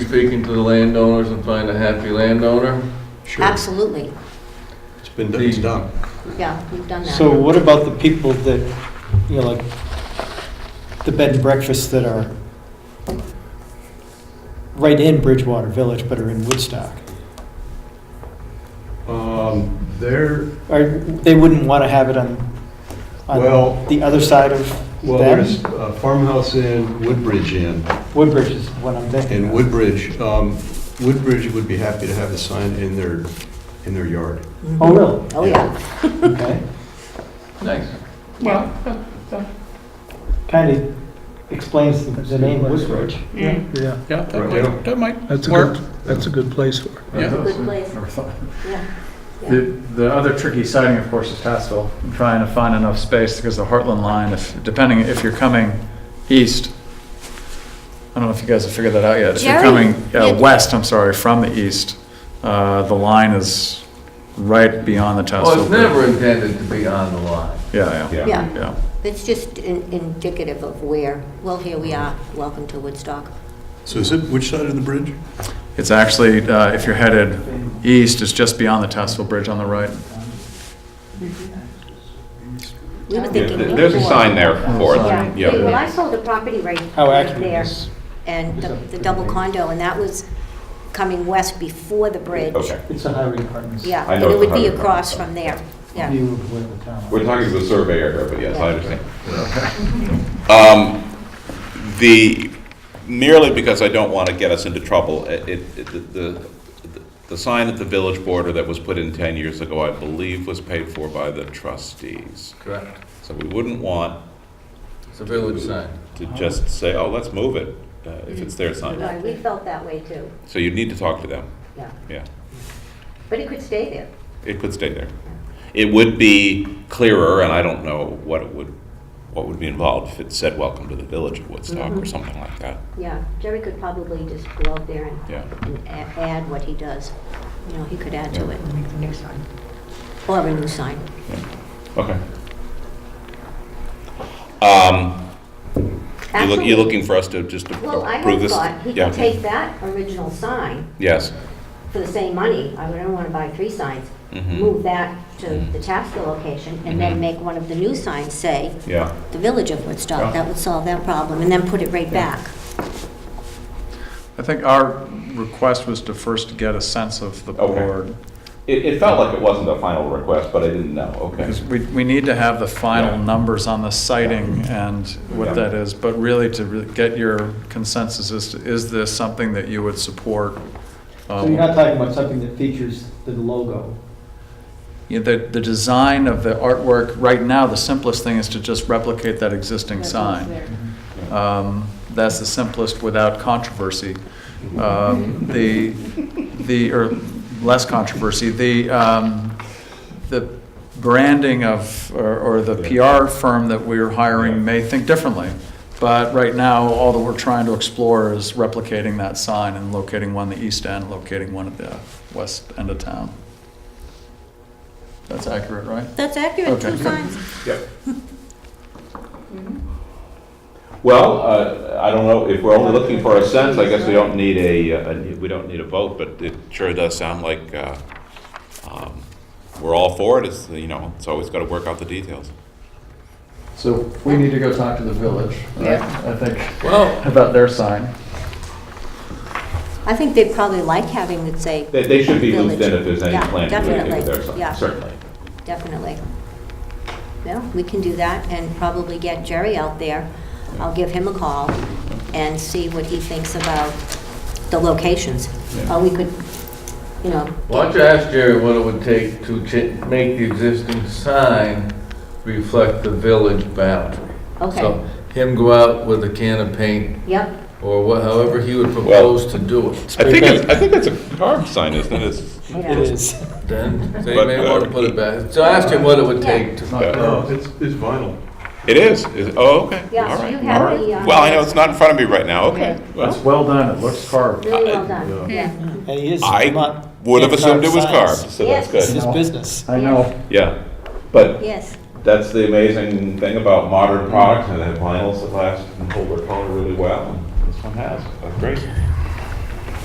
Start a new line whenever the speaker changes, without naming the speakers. speaking to the landowners and find a happy landowner?
Sure,
Absolutely,
it's been, it's done.
yeah, we've done that.
So what about the people that, you know, like, the bed and breakfasts that are right in Bridgewater Village but are in Woodstock?
Um, There,
Or they wouldn't want to have it on,
Well-
on the other side of
well, there's
them?
uh, Farmhouse Inn, Woodbridge Inn,
Woodbridge is what I'm thinking
and
of.
Woodbridge, um, Woodbridge would be happy to have a sign in their, in their yard.
Oh, really?
Oh, yeah,
Okay.
Nice.
Kind of explains the- the name Woodbridge.
Mm,
Yeah,
Yeah, that
Right, yeah.
might, that might
that's a
work.
good, that's a good place for it.
Yeah.
good place,
Never thought.
yeah.
The, the other tricky siding, of course, is Passville. I'm Trying to find enough space because the Heartland line, if, depending, if you're coming east, I don't know if you guys have figured that out yet. If you're
Jerry,
coming uh,
yeah.
west, I'm sorry, from the east, uh, the line is right beyond the Tassau.
Well, Oh, it's
Bridge.
never intended to be on the line.
Yeah, yeah,
Yeah.
yeah.
It's just in- indicative of where, well, here we are, welcome to Woodstock.
So is it, which side of the bridge?
It's actually, uh, if you're headed east, it's just beyond the Tassau Bridge on the right.
We were
Yeah,
thinking
th- There's a
before.
sign there for it,
Yeah, well, I
yeah.
sold a property right
How
right
accurate
there,
is?
and the the double condo, and that was coming west before the bridge.
Okay,
It's the highway department's
Yeah,
I
and
know
it
it's
would be
100.
across from there, yeah.
view of where the town is.
we're talking to the surveyor here, but yes, I understand. Um, The, merely because I don't want to get us into trouble, it, it- it- the- the, the sign at the village border that was put in 10 years ago, I believe, was paid for by the trustees.
Correct.
So we wouldn't want
It's a village sign.
to just say, oh, let's move it, uh, if it's their sign.
Right, We felt that way too,
So you need to talk to them,
yeah.
yeah.
But it could stay there.
It could stay there. It would be clearer, and I don't know what it would, what would be involved if it said, welcome to the village of Woodstock
Mm-hmm.
or something like that,
Yeah, Jerry could probably just go out there and-
yeah.
and a- add what he does. You know, he could add to it. New sign. Or a new sign.
Okay. Um, you're look-
Actually,
you're looking for us to just to
Well, I
approve
had
this?
thought he
Yeah.
could take that original sign
Yes.
for the same money, I don't want to buy three signs,
Mhm.
move that to
Mm-hmm.
the Tapscott location, and
Mhm.
then make one of the new signs say,
Yeah.
"The Village of
Yeah.
Woodstock." That would solve that problem, and then put it right back.
I think our request was to first get a sense of the
Okay.
board.
It, it felt like it wasn't a final request, but I didn't know, okay.
Because we, we need to have the final
Yeah.
numbers on the sighting and
Yeah.
what that is, but really to re- get your consensus is, to- is this something that you would support? um,
So you're not talking about something that features the logo?
Yeah, The, the design of the artwork, right now, the simplest thing is to just replicate that existing sign. Um, That's the simplest without controversy. Um, The, the, or less controversy, the, um, the branding of, or or the PR firm that we're hiring may think differently. But right now, all that we're trying to explore is replicating that sign and locating one at the east end, locating one at the west end of town. That's accurate, right?
That's accurate, two
Okay.
signs.
Yep. Well, uh, I don't know, if we're only looking for a sense, I guess we don't need a, uh, a- we don't need a vote, but it sure does sound like uh, um, we're all for it, it's, you know, it's always got to work out the details.
So we need to go talk to the village,
I think
Well,
about their sign.
I think they'd probably like having it say,
They, they should be looped in
Village.
if there's any
Yeah,
plan to do anything with
definitely,
their
yeah.
sign, certainly.
Definitely. Yeah, we can do that and probably get Jerry out there. I'll give him a call and see what he thinks about the locations. Or we could, you know.
why don't you ask Jerry what it would take to cha- make the existing sign reflect the village boundary?
Okay,
So him go out with a can of paint
yep,
or what, however he would propose to do it.
I think, it's- I think that's a carved sign, isn't it? It's-
yeah.
It is.
Then they
But,
may
uh,
want to put it back. So ask him what it would
Yeah.
take to.
Yeah.
No, it's, it's vinyl.
It is, is, oh, okay,
Yeah,
all
so you
right.
have
all right.
the, uh,
Well, I know it's not in front of me right now, okay.
It's
Well,
well done, it looks carved.
Really
I-
well done, yeah.
And he is.
I
not-
would have assumed it was
signs.
carved, so that's
Yes.
It's
good.
his business.
I know.
Yeah, but
Yes,
that's the amazing thing about modern products, and they have vinyls that last and hold their color really well. and This one has, that's great.